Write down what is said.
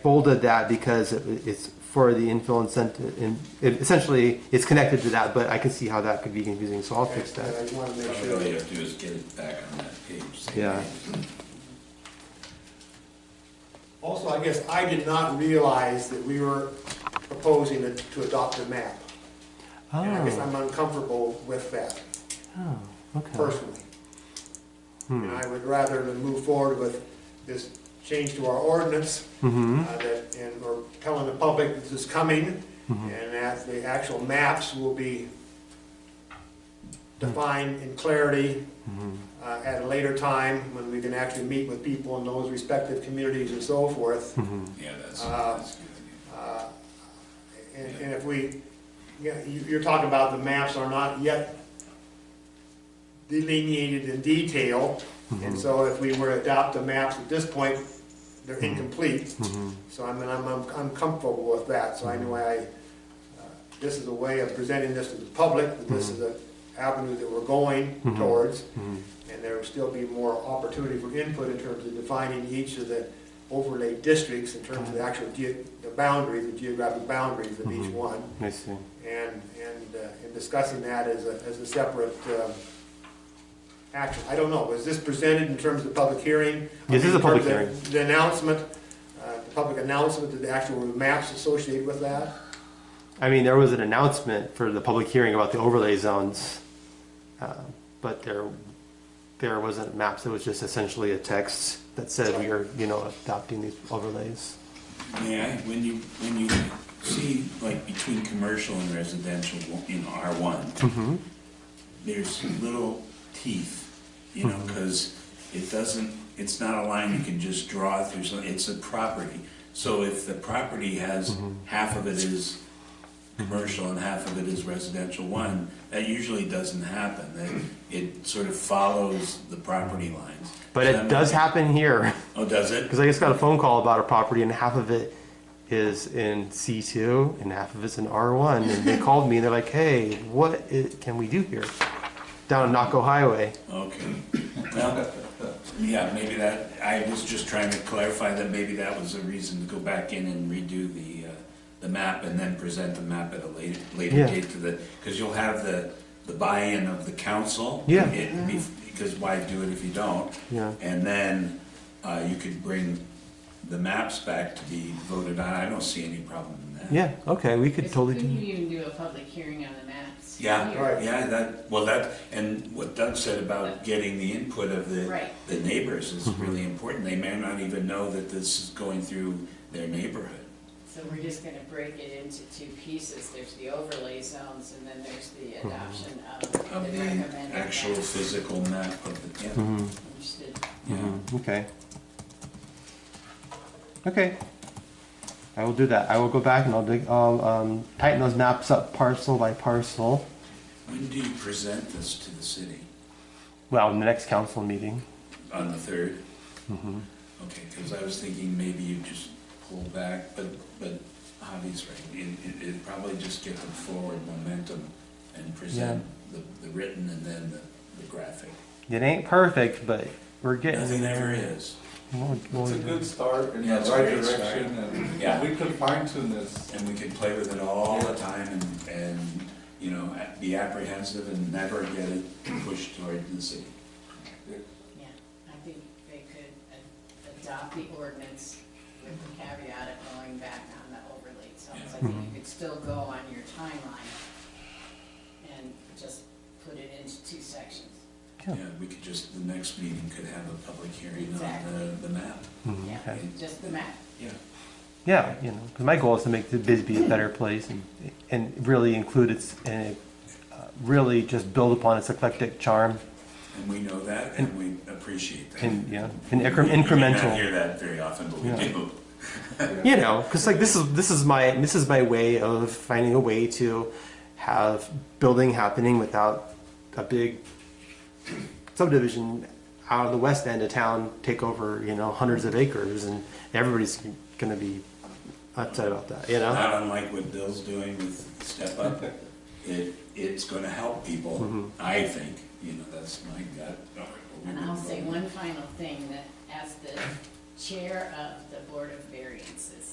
folded that because it- it's for the infill incentive, and it- essentially, it's connected to that, but I can see how that could be confusing, so I'll fix And I that. just wanna make All sure. you have to do is get it back on that page. same Yeah. page. Also, I guess I did not realize that we were proposing to- to adopt a map. And I guess Oh, I'm uncomfortable with that oh, okay. personally. And I would rather than move forward with this change to our ordinance, Mm-hmm, uh, that, and we're telling the public this is coming, and that the actual maps will be defined in clarity uh, at a later time, when we can actually meet with people in those respective communities and so forth. Yeah, that's, Uh, that's a good. Uh, And, and if we, yeah, you- you're talking about the maps are not yet delineated in detail, Mm-hmm, and so if we were to adopt the maps at this point, they're incomplete. mm-hmm, So I mean, I'm, I'm I'm comfortable with that, so I know I, uh, this is a way of presenting this to the public, that this is an avenue that we're going towards, mm-hmm. and there will still be more opportunity for input in terms of defining each of the overlay districts in terms of the actual ge, the boundaries, the geographic boundaries of each one, I see. and, and, uh, and discussing that as a, as a separate, um, action. I don't know, was this presented in terms of public hearing? I Yes, this is mean, a in terms public hearing. of The announcement, uh, the public announcement, did the actual maps associated with that? I mean, there was an announcement for the public hearing about the overlay zones, uh, but there, there wasn't maps, it was just essentially a text that said we are, you know, adopting these overlays. May I, when you, when you see, like, between commercial and residential in R one, Mm-hmm. there's little teeth, you know, Mm-hmm. because it doesn't, it's not a line you can just draw through, so it's a property. So if the property has, Mm-hmm. half of it is commercial and half of it is residential one, that usually doesn't happen. That- It sort of follows the property lines. But So it that does might- happen here. Oh, does it? Because I just got a phone call about a property and half of it is in C2 and half of it's in R1. And they called me and they're like, hey, what i can we do here? Down Naco Highway. Okay. Well, yeah, maybe that, I was just trying to clarify that maybe that was a reason to go back in and redo the, uh, the map and then present the map at a later, later Yeah. date to the, because you'll have the, the buy-in of the council. Yeah. It be- Because why do it if you don't? Yeah. And then, uh, you could bring the maps back to be voted on. I don't see any problem in that. Yeah, okay, we could totally do Couldn't that. you even do a public hearing on the maps? Yeah, here? Right. yeah, that, well, that, and what Doug said about getting the input of the, Right. the neighbors is really important. They may not even know that this is going through their neighborhood. So we're just gonna break it into two pieces, there's the overlay zones, and then there's the Mm-hmm. adoption of the Of recommended the actual maps. physical map of the, yeah, Understood. mm-hmm. yeah. Okay. Okay. I will do that. I will go back and I'll, dig, I'll um, tighten those maps up parcel by parcel. When do you present this to the city? Well, in the next council meeting. On the third? Okay, because I was thinking maybe you just pull back, but, but Javi's right. It, it, it'd probably just get the forward momentum and present the, the written and then the, the graphic. It ain't perfect, but we're getting Nothing there. ever is. We'll- we'll- It's a good start in the Yeah, right it's a great start. direction, and Yeah. if we could fine tune this. And we can play with it all the time and, and, you know, be apprehensive and never get it pushed toward the city. Yeah, I think they could a- adopt the ordinance with the caveat of going back on the overlay zones. I think Mm-hmm. you could still go on your timeline and just put it into two sections. Yeah. Yeah, we could just, the next meeting could have a public hearing on Exactly. the, the map. Mhm, Yeah, okay. just the map. Yeah. Yeah, you know, 'cause my goal is to make the Bisbee a better place and, and really include its, and uh, really just build upon its eclectic charm And we know that and we appreciate that. and, yeah, and We- incre- we may not incremental. hear that very often, but we Yeah. do. You know, because like this is this is my this is my way of finding a way to have building happening without a big subdivision out of the west end of town take over you know hundreds of acres and everybody's gonna be upset about that. You know. Not unlike what Bill's doing with Step Up, it, it's gonna help Mm-hmm. people, I think, you know, that's my gut. And I'll say one final thing, that as the chair of the Board of Variances,